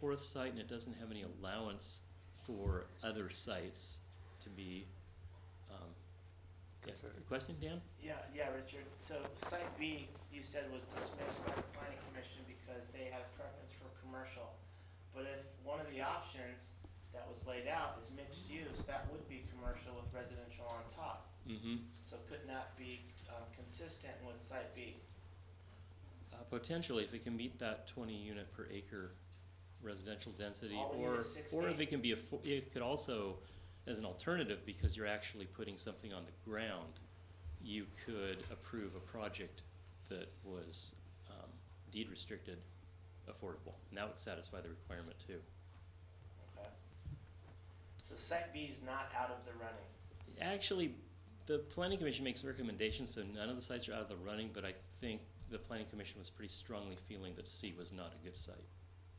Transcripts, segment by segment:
fourth site and it doesn't have any allowance for other sites to be, um, yeah, Considered. question, Dan? Yeah, yeah, Richard. So site B, you said was dismissed by the planning commission because they had a preference for commercial. But if one of the options that was laid out is mixed use, that would be commercial with residential on top. Mm-hmm. So could not be um, consistent with site B. Uh, potentially, if it can meet that twenty unit per acre residential density, All we need or, is or if 16. it can be a, fo- it could also, as an alternative, because you're actually putting something on the ground, you could approve a project that was, um, deed restricted affordable, and that would satisfy the requirement too. Okay. So site B is not out of the running. Actually, the planning commission makes recommendations, so none of the sites are out of the running, but I think the planning commission was pretty strongly feeling that C was not a good site.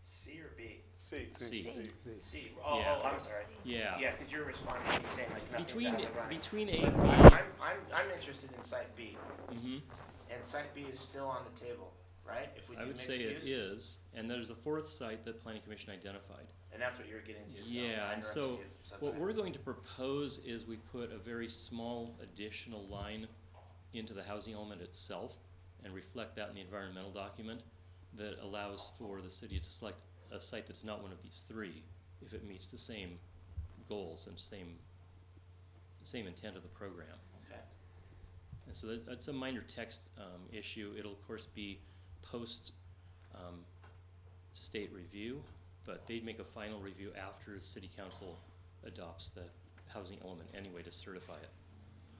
C or B? C. C. C. Oh, Yeah. oh, I'm sorry. Yeah. Yeah, because you're responding to me saying like nothing's Between, out of the running. between A But and I'm, I'm, I'm interested in site B. B, mhm, And site B is still on the table, right? If we do I would mixed say it use, is, and there's a fourth site that planning commission identified. and that's what you're getting to. so Yeah, I and interrupted so you, so what go we're ahead. going to propose is we put a very small additional line into the housing element itself and reflect that in the environmental document that allows for the city to select a site that's not one of these three if it meets the same goals and same, same intent of the program. Okay. And so that- that's a minor text um, issue. It'll, of course, be post-state review, but they'd make a final review after the city council adopts the housing element anyway to certify it.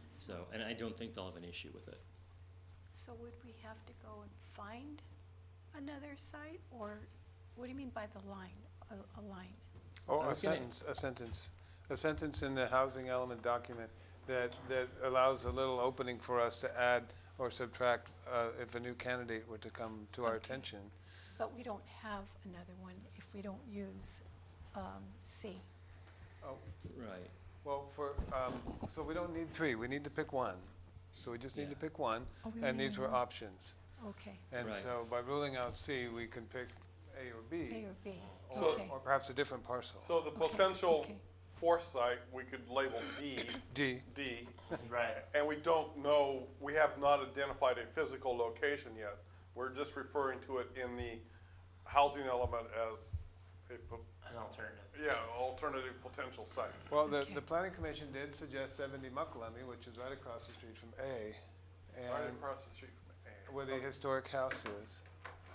So, and I don't think they'll have an issue with it. So would we have to go and find another site, or what do you mean by the line, a, a line? I Or Oh, a was gonna- sentence, a sentence, a sentence in the housing element document that, that allows a little opening for us to add or subtract uh, if a new candidate were to come to our attention. But we don't have another one if we don't use, um, C. Oh, Right. Well, for, um, so we don't need three, we need to pick one. So we just need to Yeah. pick one, Oh, we and only these need were one. options. Okay, And Right. so by ruling out C, we can pick A or A B, or B, or okay. or perhaps a different parcel. So the Okay, potential okay. fourth site, we could label D, D, D, Right. and we don't know, we have not identified a physical location yet. We're just referring to it in the housing element as a, po- An alternative. yeah, alternative potential site. well, the, Okay. the planning commission did suggest seventy Muckalemme, which is right across the street from A. Right And across the street from where the historic house is.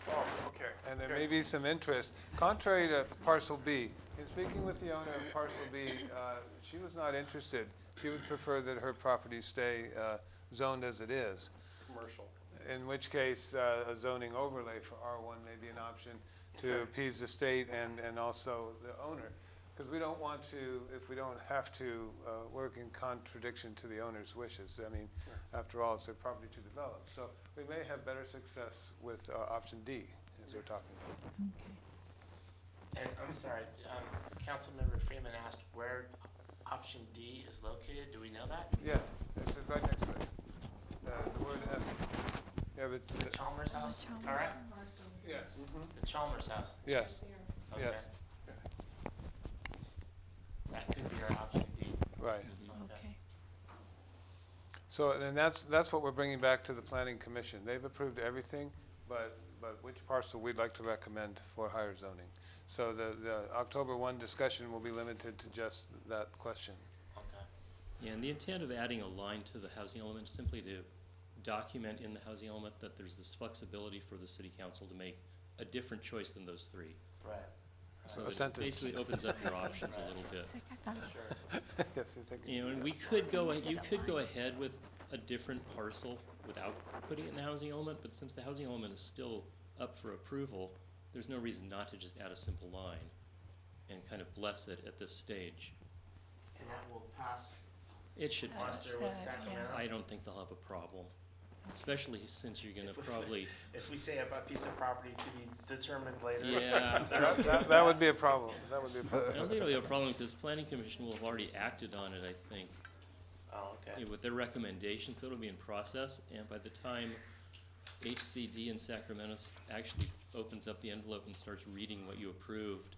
A. Oh, okay. And there okay. may be some interest, contrary to parcel B. In speaking with the owner of parcel B, uh, she was not interested. She would prefer that her property stay uh, zoned as it is, Commercial. in which case uh, a zoning overlay for R1 may be an option to appease the state and, and also the owner. Because we don't want to, if we don't have to, uh, work in contradiction to the owner's wishes. I mean, after all, it's their property to develop. So we may have better success with uh, option D, as we're talking about. okay. And I'm sorry, um, Councilmember Freeman asked where option D is located. Do we know that? Yeah, it's it's right next to it. Uh, The word F. Yeah, the, The the- Chalmers house. Chalmers All right. yes, The Chalmers house. yes, Okay. yes, That could be our option D. right. Okay, So, and that's, that's what we're bringing back to the planning commission. They've approved everything, but, but which parcel we'd like to recommend for higher zoning. So the, the October one discussion will be limited to just that question. Okay. Yeah, and the intent of adding a line to the housing element is simply to document in the housing element that there's this flexibility for the city council to make a different choice than those three. Right. So A that it sentence. basically opens up your options a little bit. It's like, I thought- Sure. Yes, you're thinking. You know, and we yes. could go, Is it you a could go line? ahead with a different parcel without putting it in the housing element, but since the housing element is still up for approval, there's no reason not to just add a simple line and kind of bless it at this stage. And that will pass. It should Uh, pass. Monster with uh, Sacramento. I don't think they'll have a problem, especially since you're gonna If we- probably, If we say about piece of property to be determined later. yeah. That, that- that would be a problem, that would be a I problem. don't think it'll be a problem because planning commission will have already acted on it, I think. Oh, okay. Yeah, with their recommendations, so it'll be in process, and by the time HCD in Sacramento s- actually opens up the envelope and starts reading what you approved,